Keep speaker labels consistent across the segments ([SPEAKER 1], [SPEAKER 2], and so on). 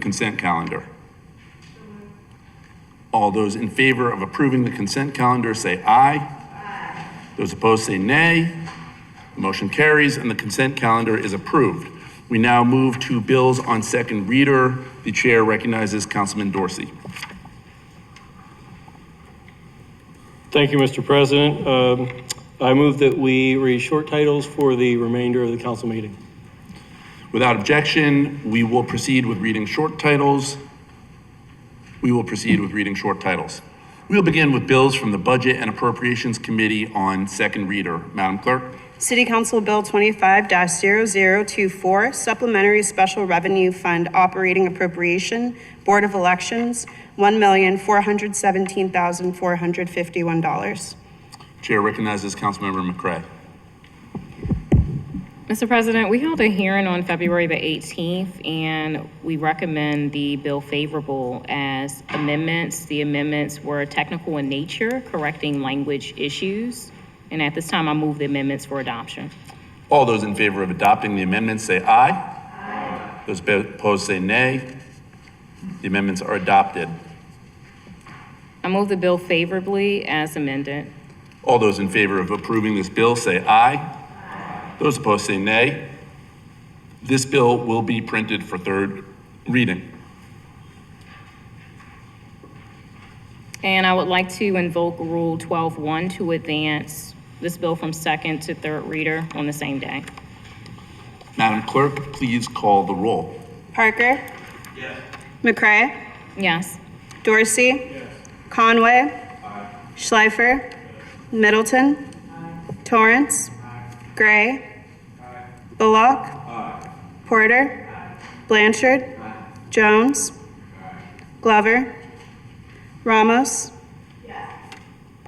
[SPEAKER 1] consent calendar? All those in favor of approving the consent calendar, say aye. Aye. Those opposed, say nay. The Motion carries, and the consent calendar is approved. We now move to bills on second reader. The chair recognizes Councilman Dorsey.
[SPEAKER 2] Thank you, Mr. President. Um, I move that we read short titles for the remainder of the council meeting.
[SPEAKER 1] Without objection, we will proceed with reading short titles. We will proceed with reading short titles. We'll begin with bills from the Budget and Appropriations Committee on second reader. Madam Clerk?
[SPEAKER 3] City Council Bill twenty-five 24 Supplementary Special Revenue Fund Operating Appropriation, Board of Elections, one million, four hundred seventeen thousand, four hundred fifty-one dollars.
[SPEAKER 1] Chair recognizes Councilmember McCray.
[SPEAKER 4] Mr. President, we held a hearing on February the 18th, and we recommend the bill favorable as amendments. The amendments were technical in nature, correcting language issues. And at this time, I move the amendments for adoption.
[SPEAKER 1] All those in favor of adopting the amendments say aye. Aye. Those opposed say nay. The amendments are adopted.
[SPEAKER 4] I move the bill favorably as amended.
[SPEAKER 1] All those in favor of approving this bill say aye. Those opposed say nay. This bill will be printed for third reading.
[SPEAKER 4] And I would like to invoke Rule 12-1 to advance this bill from second to third reader on the same day.
[SPEAKER 1] Madam Clerk, please call the roll.
[SPEAKER 3] Parker? McCray?
[SPEAKER 4] Yes.
[SPEAKER 3] Dorsey? Conway? Schleifer? Middleton? Torrance? Gray? Bullock? Porter? Blanchard? Jones? Glover? Ramos?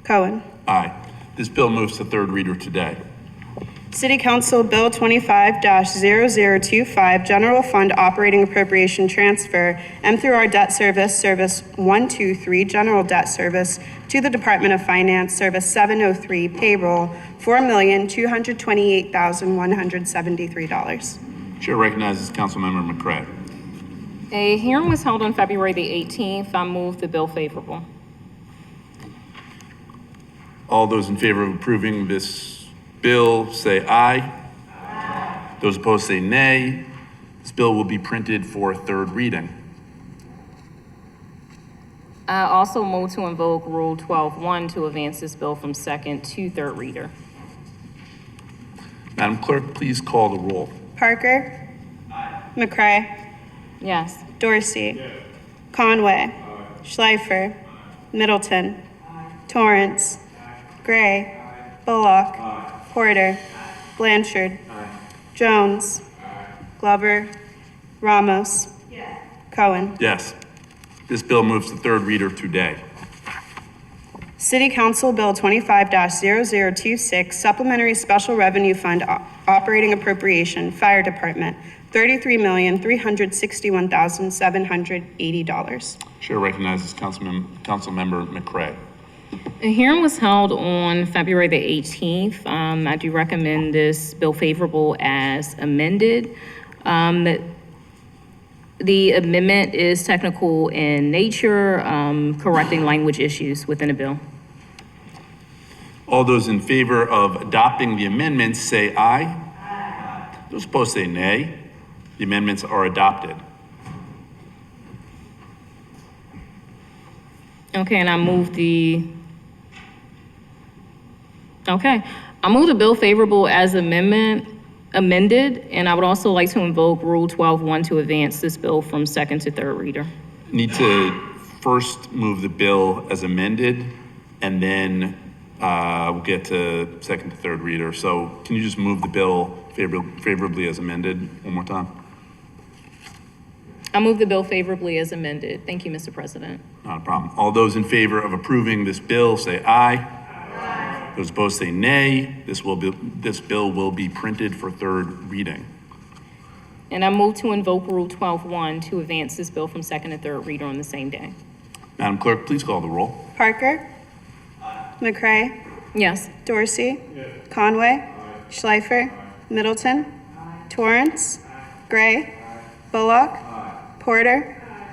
[SPEAKER 3] Cohen?
[SPEAKER 1] Aye. This bill moves to third reader today.
[SPEAKER 3] City Council Bill twenty-five 25 General Fund Operating Appropriation Transfer, M through R Debt Service, Service one-two-three, General Debt Service, to the Department of Finance, Service seven-oh-three, Payroll, four million, two hundred twenty-eight thousand, one hundred seventy-three dollars.
[SPEAKER 1] Chair recognizes Councilmember McCray.
[SPEAKER 4] A hearing was held on February the 18th. I move the bill favorable.
[SPEAKER 1] All those in favor of approving this bill say aye. Those opposed say nay. This bill will be printed for third reading.
[SPEAKER 4] I also move to invoke Rule 12-1 to advance this bill from second to third reader.
[SPEAKER 1] Madam Clerk, please call the roll.
[SPEAKER 3] Parker? McCray?
[SPEAKER 4] Yes.
[SPEAKER 3] Dorsey? Conway? Schleifer? Middleton? Torrance? Gray? Bullock? Porter? Blanchard? Jones? Glover? Ramos? Cohen?
[SPEAKER 1] Yes. This bill moves to third reader today.
[SPEAKER 3] City Council Bill twenty-five 26 Supplementary Special Revenue Fund O- Operating Appropriation, Fire Department, thirty-three million, three hundred sixty-one thousand, seven hundred eighty dollars.
[SPEAKER 1] Chair recognizes Councilmem- Councilmember McCray.
[SPEAKER 4] A hearing was held on February the 18th. Um, I do recommend this bill favorable as amended. Um, The amendment is technical in nature, um, correcting language issues within the bill.
[SPEAKER 1] All those in favor of adopting the amendments say aye. Aye. Those opposed say nay. The amendments are adopted.
[SPEAKER 4] Okay, and I move the, okay, I move the bill favorable as amendment, amended, and I would also like to invoke Rule 12-1 to advance this bill from second to third reader.
[SPEAKER 1] Need to first move the bill as amended, and then uh, we'll get to second to third reader. So can you just move the bill favor- favorably as amended one more time?
[SPEAKER 4] I move the bill favorably as amended. Thank you, Mr. President.
[SPEAKER 1] Not a problem. All those in favor of approving this bill, say aye. Those opposed say nay. This will be, this bill will be printed for third reading.
[SPEAKER 4] And I move to invoke Rule 12-1 to advance this bill from second to third reader on the same day.
[SPEAKER 1] Madam Clerk, please call the roll.
[SPEAKER 3] Parker? McCray?
[SPEAKER 4] Yes.
[SPEAKER 3] Dorsey? Conway? Schleifer? Middleton? Torrance? Gray? Bullock? Porter?